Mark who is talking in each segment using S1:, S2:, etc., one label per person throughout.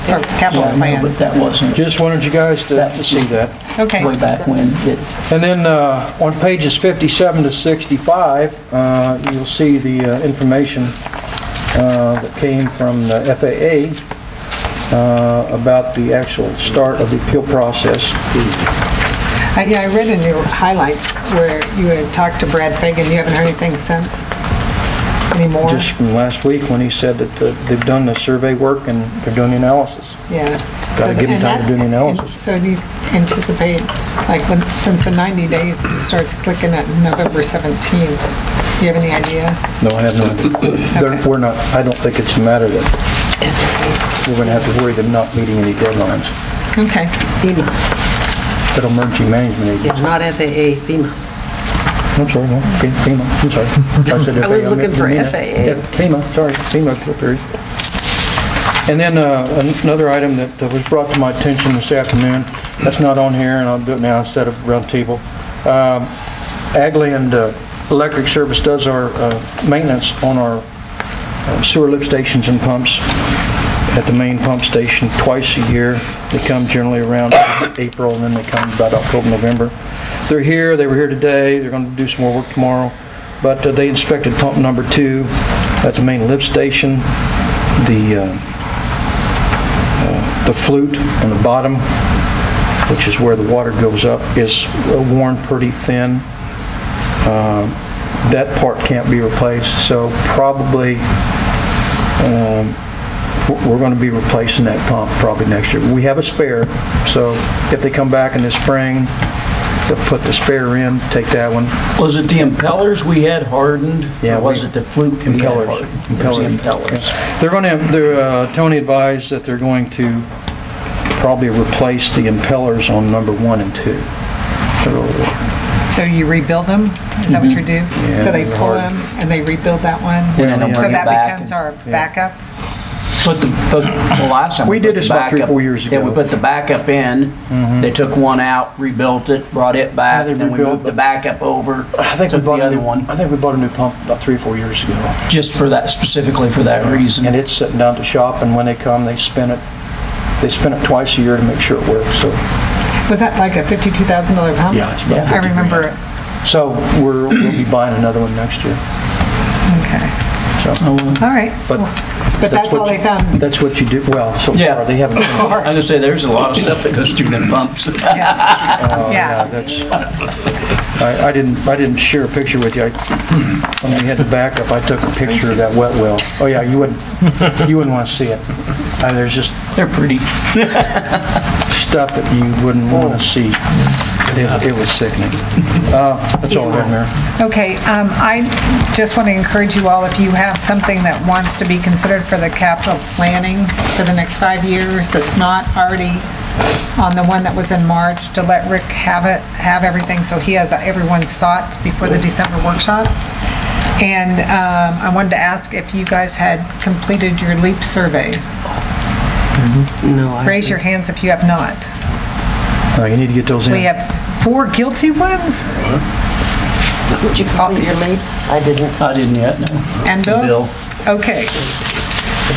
S1: for capital
S2: Yeah, I know, But
S1: plan.
S2: that wasn't
S3: Just wanted you guys to
S2: That
S3: to
S2: was
S3: see
S2: just-
S3: that.
S2: way
S1: Okay,
S2: back when. it-
S3: And then uh, on pages 57 to 65, uh, you'll see the uh, information uh, that came from the FAA uh, about the actual start of the appeal process.
S1: I, yeah, I read in your highlights where you had talked to Brad Fagan, you haven't heard anything since? Anymore?
S3: Just from last week when he said that uh, they've done the survey work and they're doing the analysis.
S1: Yeah.
S3: Gotta
S1: So
S3: give 'em
S1: and
S3: time to
S1: that-
S3: do the
S1: and
S3: analysis.
S1: So do you anticipate, like, when, since the 90 days starts clicking at November 17th, do you have any idea?
S3: No, I have no idea. They're- We're not, I don't think it's a matter that we're going to have to worry them not meeting any deadlines.
S1: Okay,
S4: FEMA,
S3: Federal Emergency Management Agency.
S4: it's not FAA, FEMA.
S3: I'm sorry, no, Fe- FEMA, I'm sorry. I said
S4: I was
S3: FAA,
S4: looking
S3: meant
S4: for
S3: MENA.
S4: FAA.
S3: Yeah, FEMA, sorry, FEMA, appeal period. And then uh, an- another item that that was brought to my attention this afternoon, that's not on here, and I'll do it now instead of roundtable. Agland Um, uh, Electric Service does our uh, maintenance on our uh, sewer lift stations and pumps at the main pump station twice a year. They come generally around April, and then they come about October, November. They're here, they were here today, they're going to do some more work tomorrow, but uh, they inspected pump number two at the main lift station, the, uh, uh, the flute on the bottom, which is where the water goes up, is uh, worn pretty thin. Um, That part can't be replaced, so probably um, we're going to be replacing that pump probably next year. We have a spare, so if they come back in the spring, they'll put the spare in, take that one.
S2: Was it the impellers we had hardened?
S3: Yeah,
S2: Or was
S3: we-
S2: it the fluke we had
S3: Impellers.
S2: hardened? It was the impellers.
S3: They're going to, they're, uh, Tony advised that they're going to probably replace the impellers on number one and two. So
S1: so you rebuild them? Is that what
S3: Mm-hmm.
S1: you do? So they
S3: they're
S1: pull
S3: hard.
S1: them and they rebuild that one?
S2: And then they'll
S1: So
S2: bring it
S1: that
S2: back
S1: becomes
S2: and-
S1: our backup?
S2: Put the, put, the last time.
S3: We did
S2: put the
S3: this about three,
S2: backup-
S3: four years
S2: Yeah, we
S3: ago.
S2: put the backup in, they took one out, rebuilt it, brought it back,
S3: Yeah, they
S2: then we
S3: rebuilt
S2: moved the
S3: it.
S2: backup over.
S3: I think we
S2: Took the
S3: bought a
S2: other
S3: new,
S2: one,
S3: I think we bought a new pump about three or four years ago.
S2: just for that, specifically for that reason.
S3: And it's sitting down at the shop, and when they come, they spin it, they spin it twice a year to make sure it works, so.
S1: Was that like a $52,000 pump?
S3: Yeah, it's about
S1: I remember it,
S3: So we're, we'll be buying another one next year,
S1: okay.
S3: so.
S2: Oh,
S1: All right,
S3: But
S1: but that's
S3: what
S1: all
S3: you-
S1: they found.
S3: That's what you do, well, so
S2: Yeah.
S3: far, they haven't.
S2: I was gonna say, there's a lot of stuff that goes through them pumps.
S3: Oh,
S1: Yeah.
S3: That's, I, I didn't, I didn't share a picture with you. I- When we had the backup, I took a picture of that wet well. Oh, yeah, you wouldn't, you wouldn't want to see it. Uh, There's just
S2: They're pretty,
S3: stuff that you wouldn't want to see. It it was sickening. Uh, That's all I have, Mayor.
S1: Okay, um, I just want to encourage you all, if you have something that wants to be considered for the capital planning for the next five years that's not already on the one that was in March, to let Rick have it, have everything, so he has everyone's thoughts before the December workshop. And um, I wanted to ask if you guys had completed your LEAP survey.
S4: No, I,
S1: Raise your
S3: Mm-hmm.
S1: hands if you have not.
S3: No, Uh, you need to get those in.
S1: We have four guilty ones?
S4: would you call your mate? I didn't.
S2: I didn't yet, no.
S1: And Bill?
S2: Bill.
S1: Okay.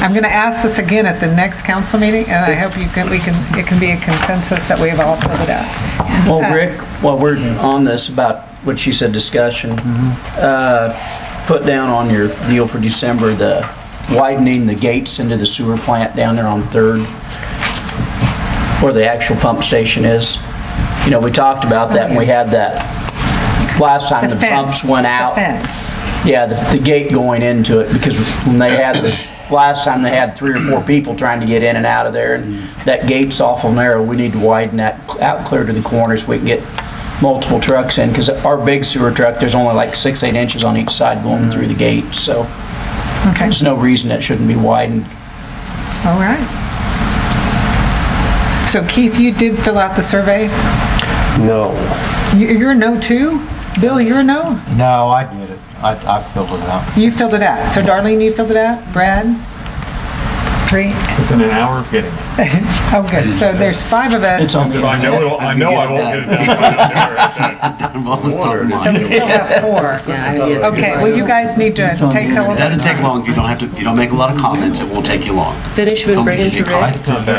S1: I'm going to ask this again at the next council meeting, and I hope you can, we can, it can be a consensus that we've all put it up.
S2: Well, Rick, while we're
S1: Mm-hmm.
S2: on this about what she said, discussion, uh, put down on your deal for December, the widening the gates into the sewer plant down there on Third, where the actual pump station is. You know, we talked about that, and we had that last time the
S1: fence,
S2: pumps went out.
S1: The fence.
S2: Yeah, the, the gate going into it, because when they had, the last time they had three or four people trying to get in and out of there, and that gate's awful narrow, we need to widen that out clear to the corner so we can get multiple trucks in, because our big sewer truck, there's only like six, eight inches on each side going through the gate, so
S1: Okay,
S2: there's no reason it shouldn't be widened.
S1: all right. So Keith, you did fill out the survey?
S5: No.
S1: You- You're a no too? Bill, you're a no?
S5: No, I did it. I, I filled it out.
S1: You filled it out. So Darlene, you filled it out? Brad? Three?
S6: Within an hour of getting it.
S1: Oh, good. So there's five of us.
S2: It's on the
S6: I know, it'll- I know I won't get it done by November.
S1: So we still have four.
S4: Yeah, I did.
S1: Okay, well, you guys need to
S2: on
S1: take
S2: the
S1: a
S2: internet.
S1: little.
S7: It doesn't take long, you don't have to, you don't make a lot of comments, it won't take you long.
S4: Finish and bring him to Rick.
S6: It's not bad.